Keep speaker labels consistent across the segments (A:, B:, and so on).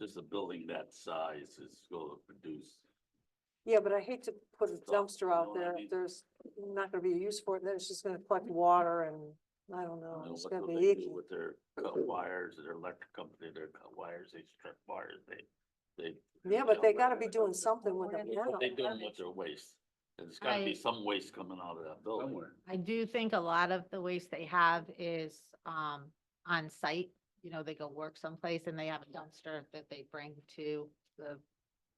A: just a building that size is gonna produce.
B: Yeah, but I hate to put a
A: Stop, you
B: dumpster
A: know
B: out
A: what I
B: there,
A: mean?
B: there's not gonna be a use for it, then it's just gonna collect water and, I don't
A: I don't
B: know,
A: know
B: Oh, it's
A: what
B: gonna
A: will
B: be
A: they do
B: icky.
A: With their cut wires, their electric company, their cut wires, they strip wires, they, they.
B: Yeah, but they
A: you know,
B: gotta be doing something with
C: What
B: it
C: if
B: now.
A: What they doing with their waste, there's gotta be
C: I-
A: some waste coming out of that building.
D: somewhere.
C: I do think a lot of the waste they have is um on site. You know, they go work someplace and they have a dumpster that they bring to the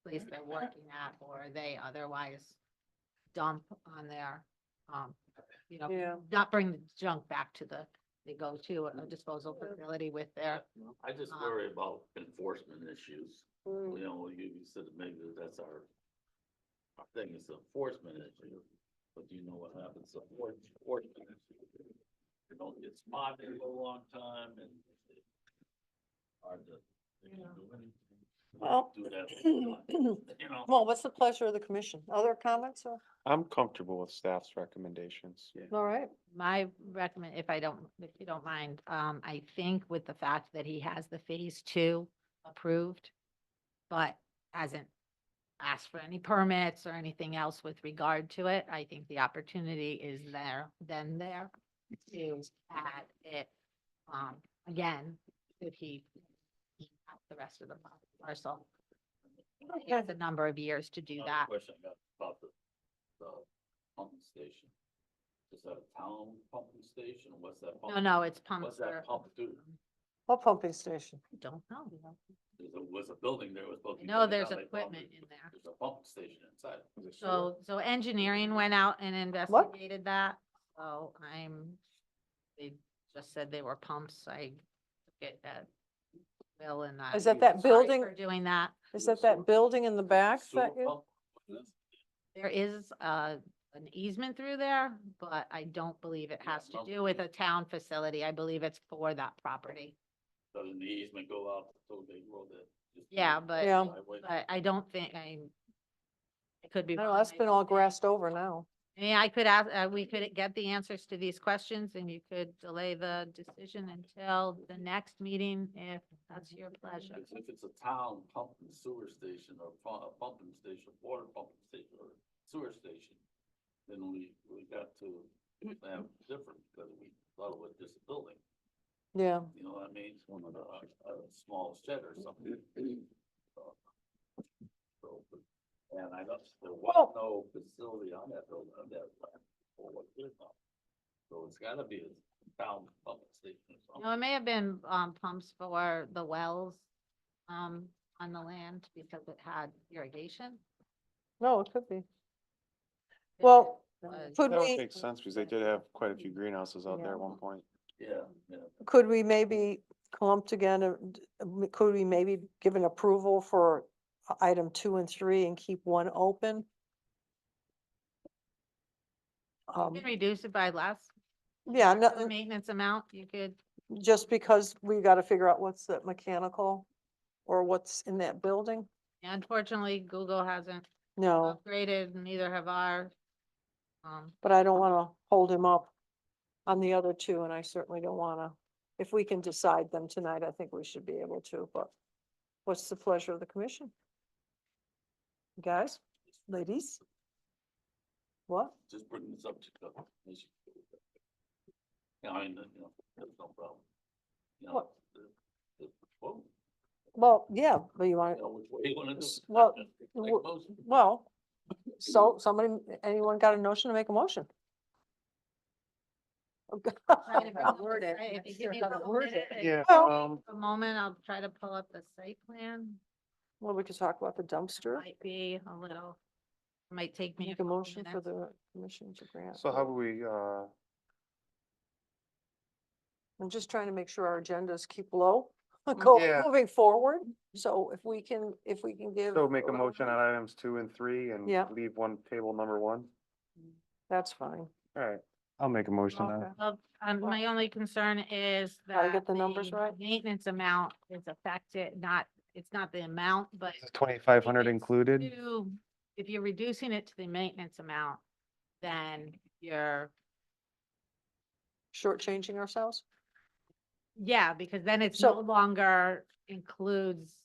C: place they're working at or they otherwise dump on their um, you know,
B: Yeah,
C: not bring the junk back to the, they go to a disposal facility with their,
A: I just
C: Um,
A: worry about enforcement issues,
B: mm,
A: you know, you you said maybe that's our. Our thing is enforcement issue, but you know what happens, to enfor- enforcement issue. You don't get spotted for a long time and. it's Hard to, they can't do anything.
B: Well,
A: Do that, you know.
B: well, what's the pleasure of the commission? Other comments or,
E: I'm comfortable with staff's recommendations.
B: all right,
C: my recommend, if I don't, if you don't mind, um, I think with the fact that he has the phase two approved, but hasn't asked for any permits or anything else with regard to it, I think the opportunity is there, then there to add it, um, again, if he has the rest of the parcel. He has a number of years to do
A: Another
C: that.
A: Question I got about the, the pumping station. Is that a town pumping station? What's that?
C: No,
A: pump-
C: no, it's pump.
A: What's that
C: for-
A: pump do?
B: what pumping station?
C: Don't know.
A: There's a, was a building there was supposed to be.
C: No,
A: taken
C: there's
A: down, they found
C: equipment
A: there's-
C: in there.
A: There's a pumping station inside.
C: So, so engineering went out and investigated that, so I'm, they just said they were pumps, I get that. Bill and that.
B: Is that that
C: sorry
B: building,
C: for Doing that,
B: is that that building in the back
A: Sewer
B: that you?
A: pump?
C: there is, uh, an easement through there, but I don't believe it
A: Yeah,
C: has to
A: well,
C: do with
A: yeah.
C: a town facility, I believe it's for that property.
A: Doesn't the easement go out so they roll that? just
C: Yeah,
A: the
C: but-
B: Yeah.
A: highway?
C: But I don't think, I, I could be.
B: I know,
C: wrong,
B: that's
C: I
B: been
C: don't
B: all
C: think-
B: grassed over now.
C: I mean, I could ask, uh, we could get the answers to these questions and you could delay the decision until the next meeting if that's your pleasure.
A: Because If it's a town pumping sewer station or pu- a pumping station, water pumping station or sewer station, then we, we got to have different, because we thought it was just a building,
B: Yeah,
A: you know what I mean? It's one of the, a, a small shed or something. So, so, but- And I don't, there was
B: Well-
A: no facility on that building, on that land. or what it is on. So it's gotta be a town pumping station or
C: No,
A: something.
C: it may have been, um, pumps for the wells, um, on the land because it had irrigation.
B: no, it could be.
C: It
B: Well, uh,
C: was-
B: could
E: That would
B: we?
E: make sense because they did have quite a few greenhouses out there at one point.
A: Yeah, yeah.
B: Could we maybe clump together, d- m- could we maybe give an approval for i- item two and three and keep one open?
C: You
B: Um,
C: can reduce it by less.
B: yeah, uh,
C: or the
B: no,
C: Maintenance amount, you could,
B: just because we gotta figure out what's the mechanical or what's in that building?
C: unfortunately, Google hasn't
B: No,
C: upgraded, neither have our. Um,
B: but I don't wanna hold him up on the other two, and I certainly don't wanna. If we can decide them tonight, I think we should be able to, but what's the pleasure of the commission? Guys, ladies? What?
A: just bring this up to the. commission. Yeah, I mean, you know, that's no problem. You know,
B: What?
A: the- the- Well,
B: Well, yeah, but you
A: you
B: want,
A: know, which way you wanna do it.
B: Well,
A: Like
B: w-
A: most-
B: well, so somebody, anyone got a notion to make a motion? Okay.
C: trying to
B: Well,
C: word it. If you give me a couple minutes, I-
E: Yeah,
B: Well-
E: um,
C: A moment, I'll try to pull up the site plan.
B: we could talk about the dumpster,
C: Might be a little, might take me.
B: make a
C: couple
B: motion for
C: minutes.
B: the commission to grant.
E: so how do we, uh,
B: I'm just trying to make sure our agendas keep low, go
E: Mm, Yeah.
B: moving forward. So if we can, if we can give.
E: so make a motion on items two and three and
B: Yeah.
E: leave one table number one?
B: That's fine.
E: All right, I'll make a motion on
B: Okay.
E: it.
C: Well, Um, my only concern is that.
B: Gotta get the numbers right.
C: Maintenance amount is affected, not, it's not the amount, but.
E: Twenty-five hundred
C: it's
E: included?
C: to- If you're reducing it to the maintenance amount, then you're,
B: Shortchanging ourselves?
C: yeah, because then it's
B: So-
C: no longer includes